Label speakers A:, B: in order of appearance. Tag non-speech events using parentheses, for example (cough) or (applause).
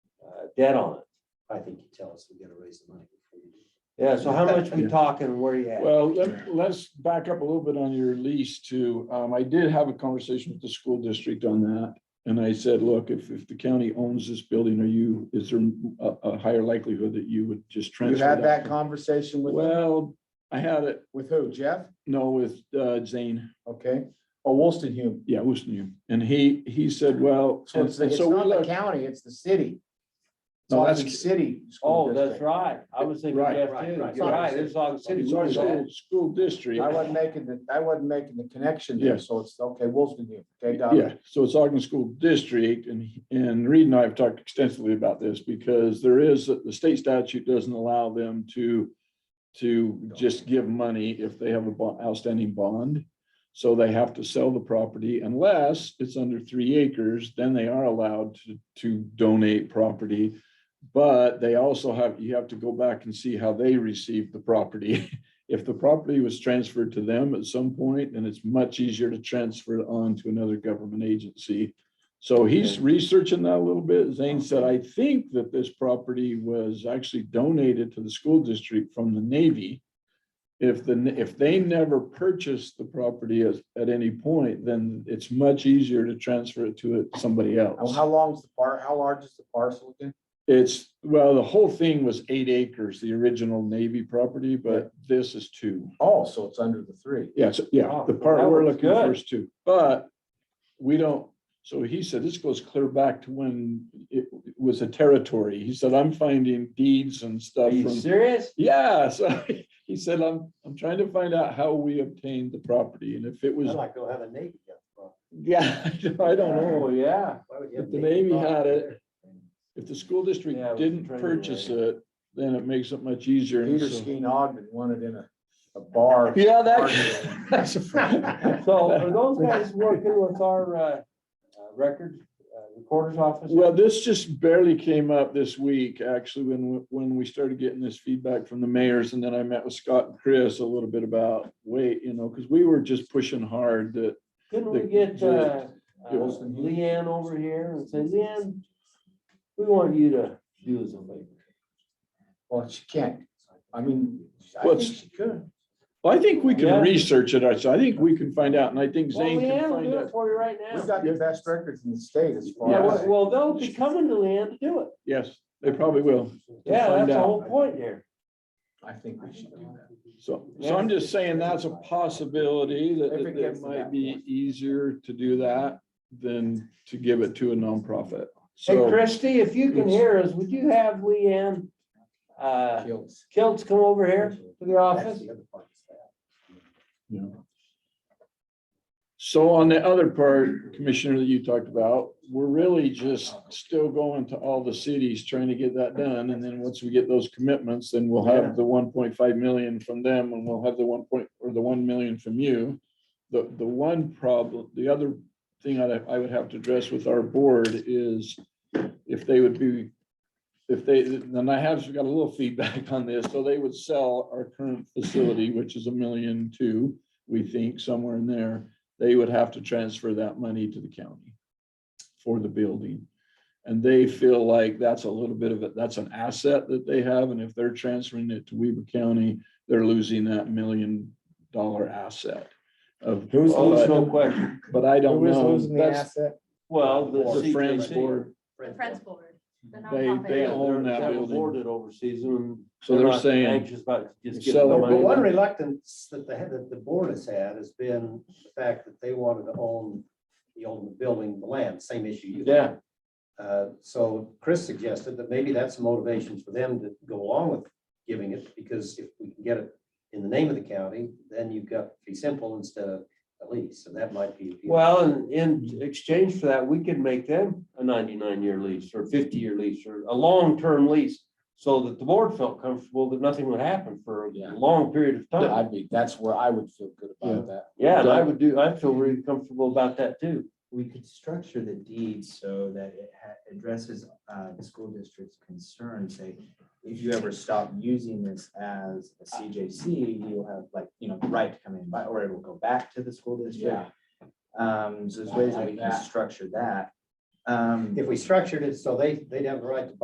A: got debt uh, on it.
B: I think you tell us we gotta raise the money. before you do.
A: Yeah, so how much (laughs) we talking, and where you at?
C: Well, let, let's back up a little bit on your lease too. Um, I did have a conversation with the school district on that. And I said, look, if, if the county owns this building, are you, is there a, a higher likelihood that you would just
D: You
C: transfer?
D: had that conversation with,
C: Well, I had it,
D: with who, Jeff?
C: no, with, uh, Zane,
D: Okay, oh, Wolstenhome.
C: yeah, Houston, and he, he said, well.
D: So it's,
C: and
D: it's
C: so we
D: not the
C: looked-
D: county, it's the city. It's
C: No,
D: all
C: that's-
D: the city. school
A: Oh, that's
D: district.
A: right. I was thinking
C: Right,
A: Jeff
B: right,
A: too.
B: right.
A: You're right. It's Ogden City.
C: It's
A: Where
C: our
A: is that?
C: school, school district.
D: I wasn't making the, I wasn't making the connection
C: Yeah.
D: there, so it's, okay, Wolstenhome, okay, got
C: Yeah,
D: it.
C: so it's Ogden School District and, and Reed and I have talked extensively about this because there is, the state statute doesn't allow them to, to just give money if they have a bo- outstanding bond. So they have to sell the property unless it's under three acres, then they are allowed to, to donate property. But they also have, you have to go back and see how they received the property. (laughs) If the property was transferred to them at some point, then it's much easier to transfer it on to another government agency. So he's researching that a little bit. Zane said, I think that this property was actually donated to the school district from the Navy. If the, if they never purchased the property at, at any point, then it's much easier to transfer it to it- somebody
D: Now,
C: else.
D: How long's the par, how large is the parcel again?
C: It's, well, the whole thing was eight acres, the original Navy property, but this is two.
D: Oh, so it's under the three.
C: Yes, yeah,
A: Wow,
C: the part
A: that
C: we're
A: works
C: looking for
A: good.
C: is two, but we don't, so he said, this goes clear back to when it was a territory. He said, I'm finding deeds and
A: Are
C: stuff
A: you
C: from,
A: serious?
C: yeah, so (laughs) he said, I'm, I'm trying to find out how we obtained the property and if it
B: I'd
C: was,
B: like to go have a Navy. gun, bro.
C: (laughs) yeah, I don't know.
A: Oh, yeah.
B: Why would you
C: If
B: have
C: the
B: Navy
C: Navy
B: gun?
C: had it, if the school district
A: Yeah, it was a
C: didn't
A: training
C: purchase
A: area.
C: it, then it makes it much easier. and
D: Peter
C: so-
D: Skeen Ogden wanted in a, a bar.
C: Yeah,
D: Arguing.
C: that. (laughs) that's right.
A: (laughs) So are those guys working with our uh, uh, record uh, recorder's office?
C: Well, this just barely came up this week, actually, when, when we started getting this feedback from the mayors. And then I met with Scott and Chris a little bit about, wait, you know, because we were just pushing hard that,
A: Couldn't we
C: the-
A: get uh, uh,
C: Yeah.
A: Leanne over here and say, Leanne, we want you to do us a favor.
D: Well, she can't, I mean, I
C: Well,
D: think
C: it's-
D: she could.
C: well, I think we
A: Yeah.
C: can research it. I so I think we can find out. And I think
A: Well,
C: Zane
A: Leanne
C: can
A: will
C: find
A: do it
C: out.
A: for you right
D: We've
A: now.
D: got the best records in the state as far
A: Yeah,
D: as.
A: well- well, they'll be coming to Leanne to do it.
C: Yes, they probably will.
A: Yeah, that's
C: find
A: the
C: out.
A: whole point here.
D: I think we should do that.
C: So, so I'm just saying that's a possibility that
D: If it
C: that
D: gets
C: it
D: to
C: might
D: that
C: be
D: point.
C: easier to do that than to give it to a nonprofit.
A: Hey,
C: So,
A: Christie, if you can hear us, would you have Leanne uh,
D: Kills.
A: Kiltz come over here to the
B: That's
A: office?
B: the other part of that.
C: so on the other part, Commissioner, that you talked about, we're really just still going to all the cities trying to get that done. And then once we get those commitments, then we'll have the one point five million from them and we'll have the one point, or the one million from you. The, the one problem, the other thing I, I would have to address with our board is if they would be, if they, and I have got a little feedback on this, so they would sell our current facility, which is a million two, we think, somewhere in there, they would have to transfer that money to the county for the building. And they feel like that's a little bit of it, that's an asset that they have, and if they're transferring it to Weaver County, they're losing that million dollar asset of.
A: Who's
C: but-
A: losing? No question.
C: But I don't
D: Who is
C: know.
D: losing the
C: That's
D: asset?
A: Well, the
C: the Friends
A: CKC.
C: Board,
B: Friends
E: Friends
B: gun.
E: Board. the
C: They-
E: nonprofit.
C: they
A: Yeah,
C: own
A: they're-
C: that
A: they're
C: building.
A: Boarded overseas and.
C: So they're
A: not
C: saying-
A: Anxious about just getting
C: Sell
A: the
C: it.
B: But the
A: money.
B: one
A: back.
B: reluctance that the, that the board has had has been the fact that they wanted to own, the own the building, the land, same issue you. had.
A: Yeah.
B: Uh, So Chris suggested that maybe that's a motivation for them to go along with giving it, because if we can get it in the name of the county, then you've got fee simple instead of a lease, and that might be.
A: Well, and in exchange for that, we could make them a ninety-nine year lease or fifty-year lease or a long-term lease. So that the board felt comfortable that nothing would happen for a
D: Yeah.
A: long period of time.
D: I'd be, that's where I would feel good about that.
A: Yeah, and I would do, I feel really comfortable about that too.
F: we could structure the deed so that it ha- addresses uh, the school district's concerns, say, if you ever stop using this as a CJC, you'll have like, you know, the right to come in, by- or it will go back to the school district. Um, so there's ways that we
D: Yeah.
F: can structure that. Um,
B: If we structured it so they, they'd have the right to buy